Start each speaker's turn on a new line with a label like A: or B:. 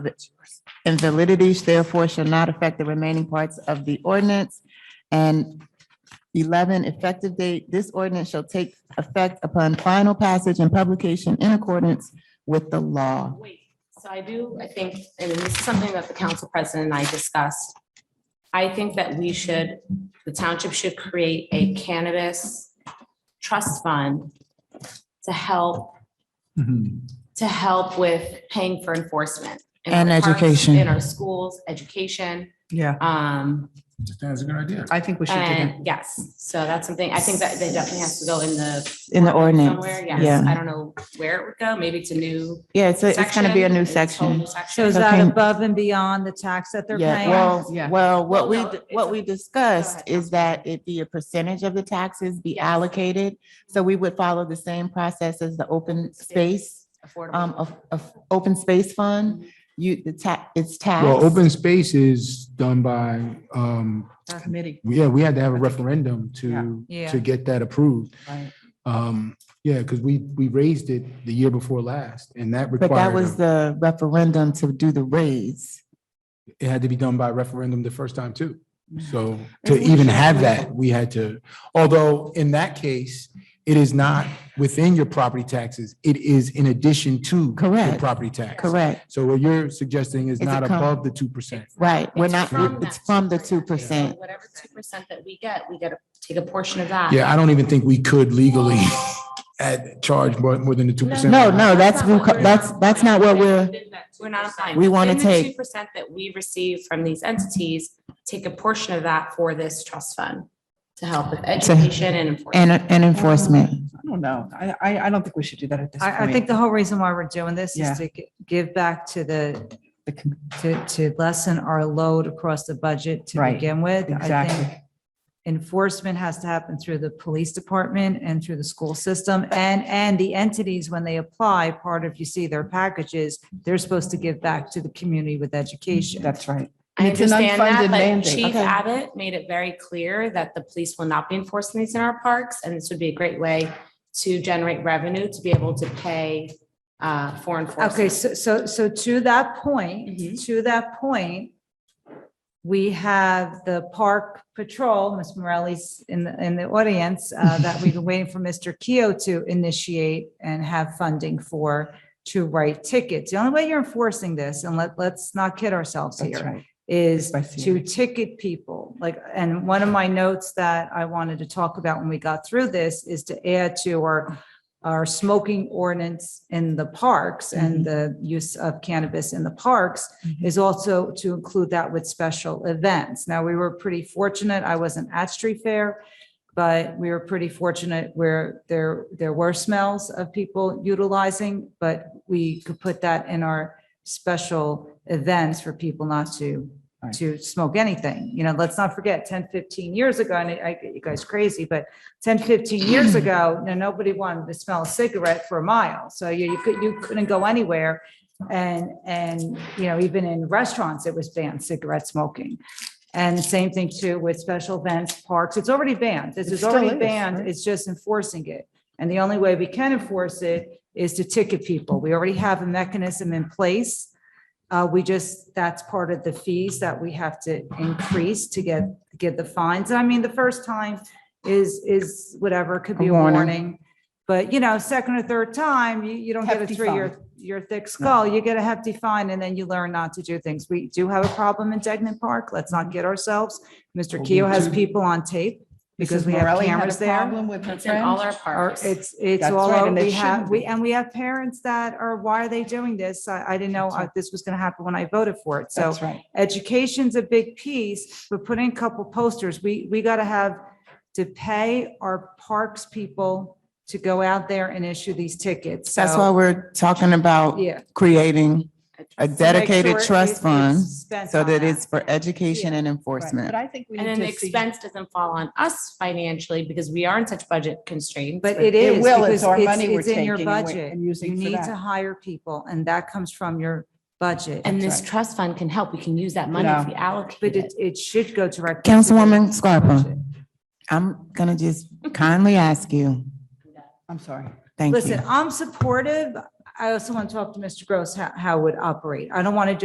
A: invalidities therefore shall not affect the remaining parts of the ordinance. And eleven, effective date, this ordinance shall take effect upon final passage and publication in accordance with the law.
B: Wait, so I do, I think, and this is something that the council president and I discussed. I think that we should, the township should create a cannabis trust fund to help,
A: Mm-hmm.
B: to help with paying for enforcement. in our
A: And
B: parks,
A: education.
B: In our schools, education,
C: Yeah,
B: um,
D: That's a good idea.
C: I think we should do that.
B: and yes, so that's something, I think that that definitely has to go in the.
A: In the ordinance,
B: Somewhere, yes,
A: yeah,
B: I don't know where it would go, maybe to new.
A: yeah, it's, a- it's gonna be a new section.
B: section, it's a whole
E: So is
A: So
E: that
A: can-
E: above and beyond the tax that they're
A: Yeah,
E: paying?
A: well,
C: Yeah.
A: well, what we,
B: Well, no,
A: d-
B: it's
A: what
B: a-
A: we discussed
B: ahead.
A: is that it be a percentage of the taxes be allocated. So we would follow the same process as the open space,
B: Affordable.
A: um, of, of open space fund. You, the ta, it's taxed.
D: Well, open space is done by, um,
C: Our committee.
D: yeah, we had to have a referendum to,
E: Yeah.
D: to get that approved.
C: Right.
D: Um, yeah, because we, we raised it the year before last and that
A: But that
D: required,
A: was
D: a-
A: the referendum to do the raise.
D: it had to be done by referendum the first time too. So to
A: Isn't it
D: even have
A: shameful?
D: that, we had to, although in that case, it is not within your property taxes. It is in addition to your
A: Correct.
D: property tax.
A: Correct,
D: So what you're suggesting is
A: It's a
D: not
A: com-
D: above the 2%.
A: right. We're
B: It's
A: not,
B: from
A: it's
B: that
A: from the two
B: 2%.
A: percent.
B: So Whatever two percent that we get, we gotta take a portion of that.
D: Yeah, I don't even think we could legally add, charge more, more than the two percent.
A: No, no, that's,
B: That's not what we're-
A: that's, that's not what we're,
B: We're not applying.
A: We wanna take-
B: Two percent that we receive from these entities, take a portion of that for this trust fund to help with education and enforcement.
A: and, and enforcement.
C: I don't know. I, I, I don't think we should do that at this point.
E: I, I think the whole reason why we're doing this
C: Yeah.
E: is to gi- give back to the,
C: The com-
E: to, to lessen our load across the budget to
C: Right.
E: begin with. I think
C: Exactly.
E: enforcement has to happen through the police department and through the school system and, and the entities, when they apply, part of, you see their packages, they're supposed to give back to the community with education.
C: That's right.
B: I
C: It's an
B: understand
C: unfunded
B: that, but
C: mandate.
B: Chief
C: Okay.
B: Abbott made it very clear that the police will not be enforcing these in our parks, and this would be a great way to generate revenue to be able to pay uh, for enforcement.
E: Okay, so, so, so to that point,
B: Mhm.
E: to that point, we have the park patrol, Ms. Morelli's in the, in the audience, uh, that we've been waiting for Mr. Keo to initiate and have funding for to write tickets. The only way you're enforcing this, and let, let's not kid ourselves
C: That's
E: here,
C: right.
E: is
C: By seeing
E: to
C: it.
E: ticket people. Like, and one of my notes that I wanted to talk about when we got through this is to add to our, our smoking ordinance in the parks and the use of cannabis in the parks is also to include that with special events. Now, we were pretty fortunate. I wasn't at street fair, but we were pretty fortunate where there, there were smells of people utilizing, but we could put that in our special events for people not to
C: Right.
E: to smoke anything. You know, let's not forget 10, 15 years ago, and I get you guys crazy, but 10, 15 years ago, no, nobody wanted to smell a cigarette for a mile. So you, you could, you couldn't go anywhere. And, and, you know, even in restaurants, it was banned cigarette smoking. And the same thing too with special events, parks. It's already banned. This
C: It
E: is
C: still
E: already
C: is,
E: banned.
C: right.
E: It's just enforcing it. And the only way we can enforce it is to ticket people. We already have a mechanism in place. Uh, we just, that's part of the fees that we have to increase to get, get the fines. I mean, the first time is, is whatever, could be a
C: A warning.
E: warning. But, you know, second or third time, you, you don't get it
C: Hefty
E: through your, your thick skull. You get a hefty fine and then you learn not to do things. We do have a problem in Degnan Park. Let's not kid ourselves. Mr.
D: Well,
E: Keo
D: we
E: has
D: do.
E: people on tape because
C: Mrs.
E: we have
C: Morelli had a
E: cameras there.
C: problem with her
B: It's in all
C: friend.
B: our
E: Or
B: parks.
E: it's, it's
C: That's
E: all,
C: right,
E: over.
C: and it
E: we have,
C: shouldn't
E: we,
C: be.
E: and we have parents that are, why are they doing this? I, I didn't know
C: That's right.
E: uh, this was going to happen when I voted for it. So
C: That's right.
E: education's a big piece, but putting a couple posters, we, we got to have to pay our parks people to go out there and issue these tickets.
A: That's
E: So,
A: why we're talking about
E: Yeah.
A: creating a
E: To make
A: dedicated
E: sure it-
A: trust
E: it's
A: fund
E: spent
A: so
E: on
A: that it's for
E: Uh-huh. Yeah.
A: education and
C: Right.
A: enforcement.
C: But I think we
B: And
C: need
B: then the
C: to see.
B: expense doesn't fall on us financially because we are in such budget constraints.
E: But
C: It
E: it is.
C: will,
E: because
C: it's our money we're
E: it's in your
C: taking and we-
E: budget.
C: and using
E: You
C: for
E: need
C: that.
E: to hire people and that comes from your budget.
B: And this
C: right.
B: trust fund can help. We can use that money if we allocate
E: But
B: it.
E: it, it should go directly. to the
A: Councilwoman Scarpa,
E: budget.
A: I'm gonna just kindly ask you,
C: I'm sorry.
A: thank you.
E: Listen, I'm supportive. I also want to talk to Mr. Gross, how, how it would operate. I don't want to